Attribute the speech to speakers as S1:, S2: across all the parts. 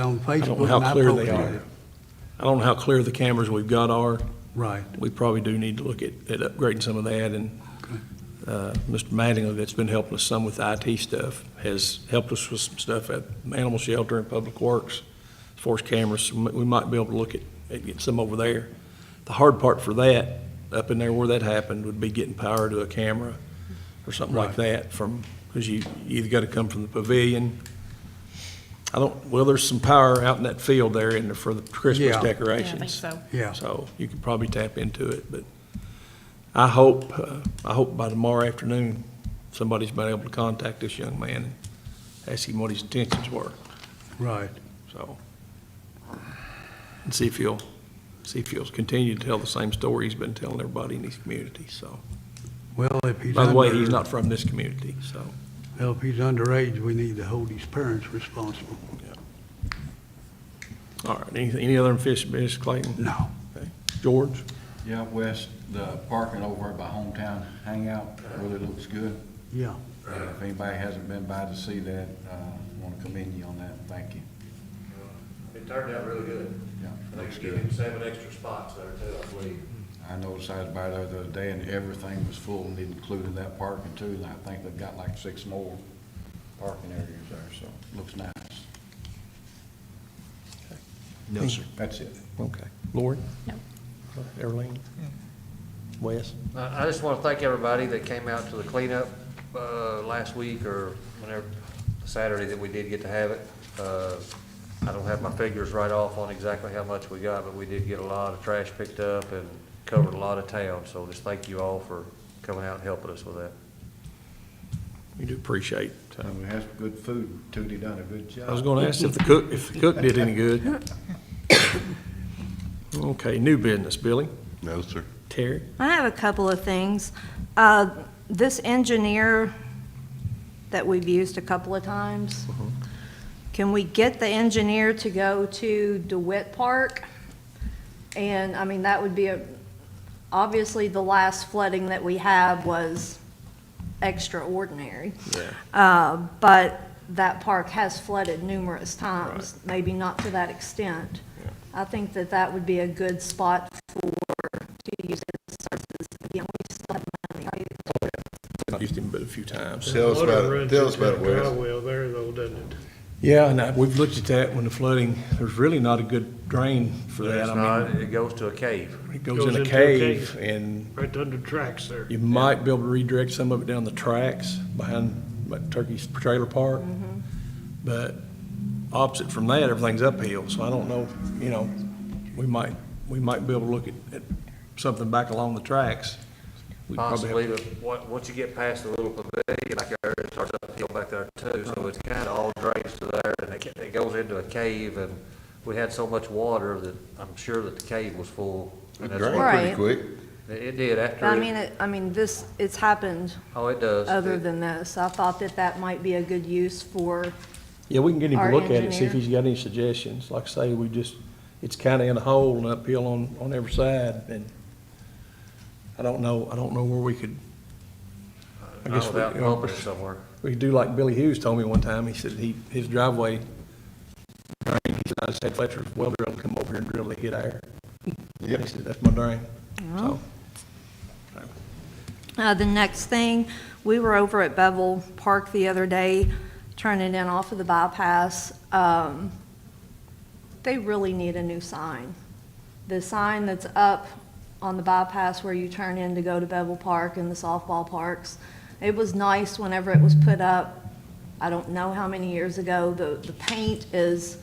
S1: on Facebook.
S2: I don't know how
S1: and
S2: clear they
S1: posted it.
S2: are. I don't know how clear the cameras we've got are.
S1: Right.
S2: We probably do need to look at, at upgrading some of that, and uh, Mr. Mattingly, that's been helping us some with the IT stuff, has helped us with some stuff at Animal Shelter and Public Works, as far as cameras, so we might be able to look at, at get some over there. The hard part for that, up in there where that happened, would be getting power to a camera or something like that from, because you, you either got to come from the pavilion. I don't, well, there's some power out in that field there in, the- for the Christmas
S1: Yeah.
S2: decorations.
S3: so.
S1: Yeah.
S2: So you could probably tap into it, but I hope, uh, I hope by tomorrow afternoon, somebody's been able to contact this young man and ask him what his intentions were,
S1: Right.
S2: so. And see if he'll, see if he'll continue to tell the same story he's been telling everybody in these communities, so.
S1: Well, if he's.
S2: By the way,
S1: under-
S2: he's not from this community, so.
S1: Well, if he's underage, we need to hold his parents responsible.
S2: All right, anything, any other official business, Clayton?
S1: No.
S2: Okay. George?
S4: Yeah, West, the parking over by Hometown Hangout really looks good.
S1: Yeah.
S4: And If anybody hasn't been by to see that, uh, want to commend you on that, thank you.
S5: It turned out really good.
S4: Yeah,
S5: They
S4: looks
S5: could give
S4: good.
S5: him seven extra spots there too, I believe.
S4: I noticed I was by there the other day and everything was full and it included that parking too, and I think they've got like six more parking areas there, so looks nice.
S2: No, sir.
S4: That's it.
S2: Okay. Lori?
S3: No.
S2: Everlene? Wes?
S5: I, I just want to thank everybody that came out to the cleanup, uh, last week or whenever, Saturday that we did get to have it. Uh, I don't have my figures right off on exactly how much we got, but we did get a lot of trash picked up and covered a lot of town. So just thank you all for coming out and helping us with that.
S2: We do appreciate. uh,
S4: And we have some good food. Tootie done a good job.
S2: I was gonna ask if the cook, if the cook did any good. Okay, new business, Billy,
S6: No, sir.
S2: Terry,
S7: I have a couple of things. Uh, This engineer that we've used a couple of times, can we get the engineer to go to DeWitt Park? And, I mean, that would be, a obviously, the last flooding that we had was extraordinary.
S2: Yeah.
S7: Uh, But that park has flooded numerous times, maybe not to that extent. I think that that would be a good spot to use as services. Again, we still have money. Are you-
S2: I've used him but a few times.
S6: Tell us about
S8: Water
S6: it, tell us
S8: runs into
S6: about it,
S8: that
S6: Wes.
S8: Drywall there though, doesn't it?
S2: Yeah, and I- we've looked at that when the flooding, there's really not a good drain for that.
S5: It's
S2: I
S5: not, it goes to a cave.
S2: mean, it goes in a
S8: into a
S2: cave
S8: cave.
S2: and
S8: Right under the tracks there.
S2: you might be able to redirect some of it down the tracks behind like, Turkey's trailer park.
S7: Mm-hmm.
S2: But opposite from that, everything's uphill, so I don't know, you know, we might, we might be able to look at, at something back along the tracks. We'd probably have
S5: Possibly, but on- once you get past the little pavilion back there, it starts uphill back there too, so it's kind of all drains to there, and it, it goes into a cave, and we had so much water that I'm sure that the cave was full.
S6: It
S5: and that's
S6: drained
S5: why-
S6: pretty
S7: Right.
S6: quick.
S5: It it did
S7: But I
S5: after,
S7: mean,
S5: it-
S7: it- I mean, this, it's happened
S5: oh, it does.
S7: other
S5: It-
S7: than this. I thought that that might be a good use for,
S2: Yeah, we can get him to
S7: Our
S2: look at it, see if
S7: engineer.
S2: he's got any suggestions. Like I say, we just, it's kind of in a hole and uphill on, on every side, and I don't know, I don't know where we could, I
S5: Not
S2: guess we- uh,
S5: without
S2: you know,
S5: pumping it somewhere.
S2: we could do like Billy Hughes told me one time, he said he, his driveway, drain, he said, I just had Fletcher's well drill come over here and drill to get air. He
S6: Yep.
S2: said, that's my drain, so.
S7: Uh, the next thing, we were over at Bevel Park the other day, turning in off of the bypass. Um, They really need a new sign. The sign that's up on the bypass where you turn in to go to Bevel Park and the softball parks. It was nice whenever it was put up. I don't know how many years ago. The, the paint is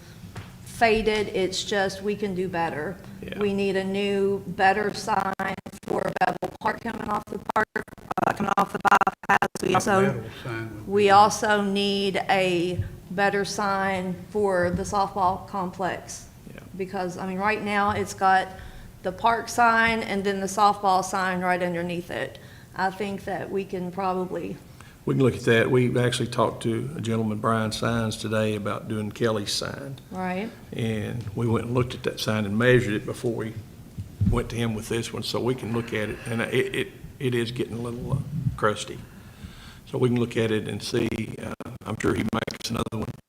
S7: faded. It's just, we can do better.
S2: Yeah.
S7: We need a new, better sign for Bevel Park coming off the park, uh, coming off the bypass. We also,
S1: Metal sign would be-
S7: we also need a better sign for the softball complex.
S2: Yeah.
S7: Because, I mean, right now, it's got the park sign and then the softball sign right underneath it. I think that we can probably
S2: We can look at that. We actually talked to a gentleman, Brian Sines, today about doing Kelly's sign.
S7: Right,
S2: And we went and looked at that sign and measured it before we went to him with this one, so we can look at it. And it, it, it is getting a little uh, crusty. So we can look at it and see, uh, I'm sure he makes another one